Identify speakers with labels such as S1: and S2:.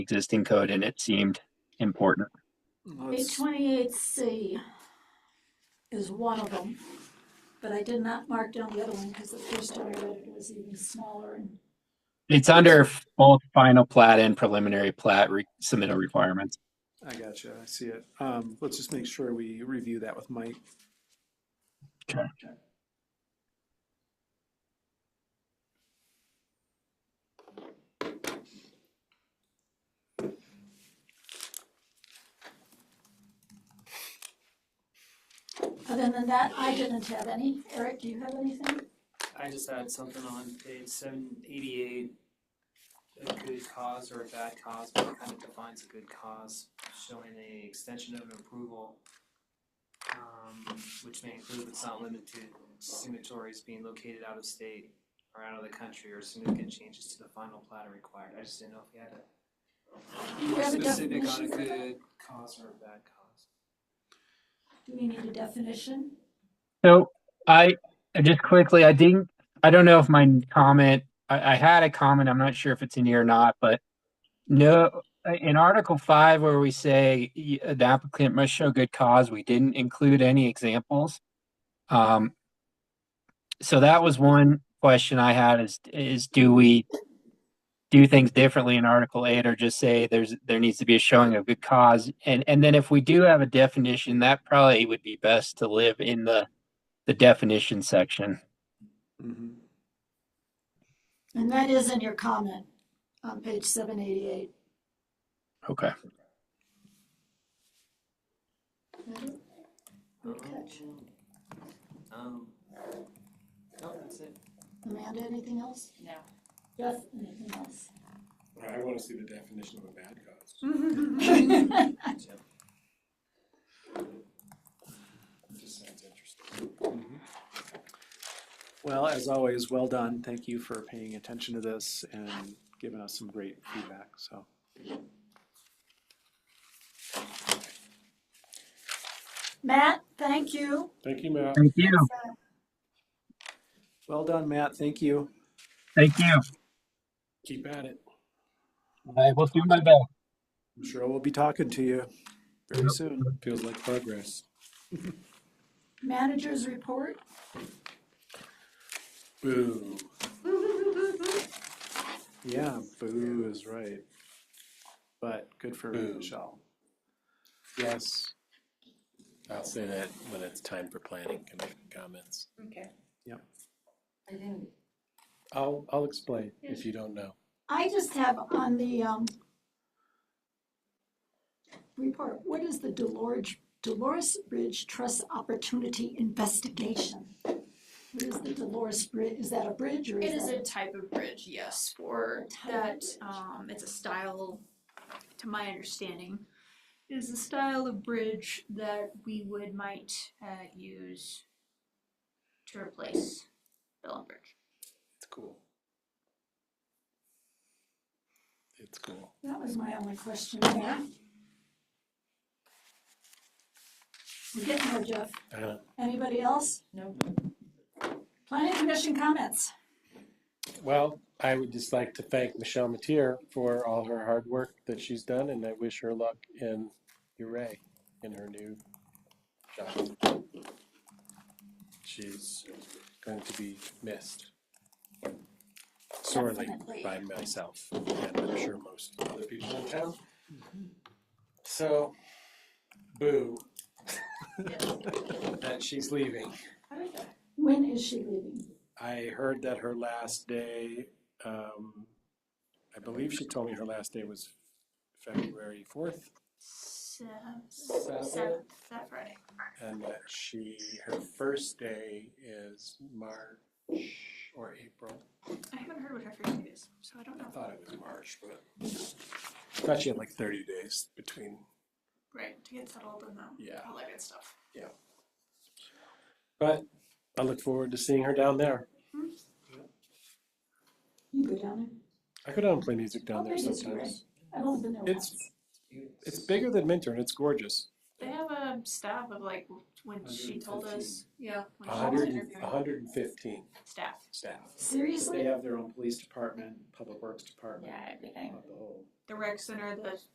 S1: existing code and it seemed important.
S2: Page twenty-eight C is one of them, but I did not mark down the other one because the first time I read it, it was even smaller and
S1: It's under f- both final plat and preliminary plat re- submittal requirements.
S3: I gotcha, I see it. Um, let's just make sure we review that with Mike.
S1: Okay.
S2: other than that, I didn't have any. Eric, do you have anything?
S4: I just had something on page seven eighty-eight. A good cause or a bad cause, what kind of defines a good cause, showing a extension of an approval. Um, which may include but not limited to signatories being located out of state or out of the country or significant changes to the final plat are required, I just didn't know if you had a
S2: Do you have a
S4: specific on a
S2: definition for that?
S4: good cause or a bad cause.
S2: Do we need a definition?
S1: So I I just quickly, I didn't, I don't know if my comment, I, I had a comment, I'm not sure if it's in here or not, but no, in Article Five where we say y- the applicant must show good cause, we didn't include any examples. Um, so that was one question I had is, is do we do things differently in Article Eight or just say there's, there needs to be a showing of good cause? And, and then if we do have a definition, that probably would be best to live in the the definition section.
S3: Mhm.
S2: And that is in your comment on page seven eighty-eight.
S1: Okay.
S2: Good catch.
S4: Um, no, that's it.
S2: Amanda, anything else?
S5: No.
S2: Jeff, anything else?
S6: I want to see the definition of a bad cause. It just sounds interesting.
S3: Mm-hmm. Well, as always, well done. Thank you for paying attention to this and giving us some great feedback, so.
S2: Matt, thank you. Uh,
S6: Thank you, Matt.
S1: Thank you.
S3: Well done, Matt, thank you.
S1: Thank you.
S6: Keep at it.
S1: I will do my best.
S3: I'm sure we'll be talking to you very soon.
S6: Feels like progress.
S2: Managers report.
S6: Boo.
S3: Yeah, boo is right. But good for
S6: Boo.
S3: Michelle. Yes,
S6: I'll say that when it's time for planning commission comments.
S5: Okay.
S3: Yep.
S5: I didn't.
S6: I'll, I'll explain if you don't know.
S2: I just have on the, um, report, what is the Dolores, Dolores Bridge Trust Opportunity Investigation? What is the Dolores Bridge, is that a bridge or
S7: It is
S2: is
S7: a
S2: that?
S7: type of bridge, yes, for that, um, it's a style, to my understanding, is a style of bridge that we would might, uh, use to replace Bellum Bridge.
S6: It's cool. It's cool.
S2: That was my only question there. We're getting there, Jeff.
S6: Uh,
S2: Anybody else?
S5: No.
S2: Planning Commission comments.
S6: Well, I would just like to thank Michelle Matier for all her hard work that she's done, and I wish her luck in Uray in her new job. She's going to be missed sorely
S2: Definitely.
S6: by myself, and I'm sure most other people in town. So, boo that she's leaving.
S2: When is she leaving?
S6: I heard that her last day, um, I believe she told me her last day was February fourth,
S7: Seventh,
S6: seventh,
S7: seventh, that Friday.
S6: and that she, her first day is March or April.
S7: I haven't heard what her first name is, so I don't
S6: I
S7: know.
S6: thought it was March, but I thought she had like thirty days between,
S7: Right, to get settled and um,
S6: yeah.
S7: all that good stuff.
S6: But I look forward to seeing her down there.
S2: You go down
S6: I go down and play music
S2: there. How
S6: down there
S2: big is Uray?
S6: sometimes.
S2: I've only been there
S6: It's-
S2: once.
S6: It's bigger than Minter and it's gorgeous.
S7: They have a staff of like, when she told us, yeah, when
S6: A
S7: she was
S6: hundred, and- a
S7: interviewing,
S6: hundred and fifteen
S7: staff.
S6: staff.
S3: they
S2: Seriously?
S3: have their own police department, public works department,
S5: Yeah, everything.
S3: the whole.
S7: the rec center, the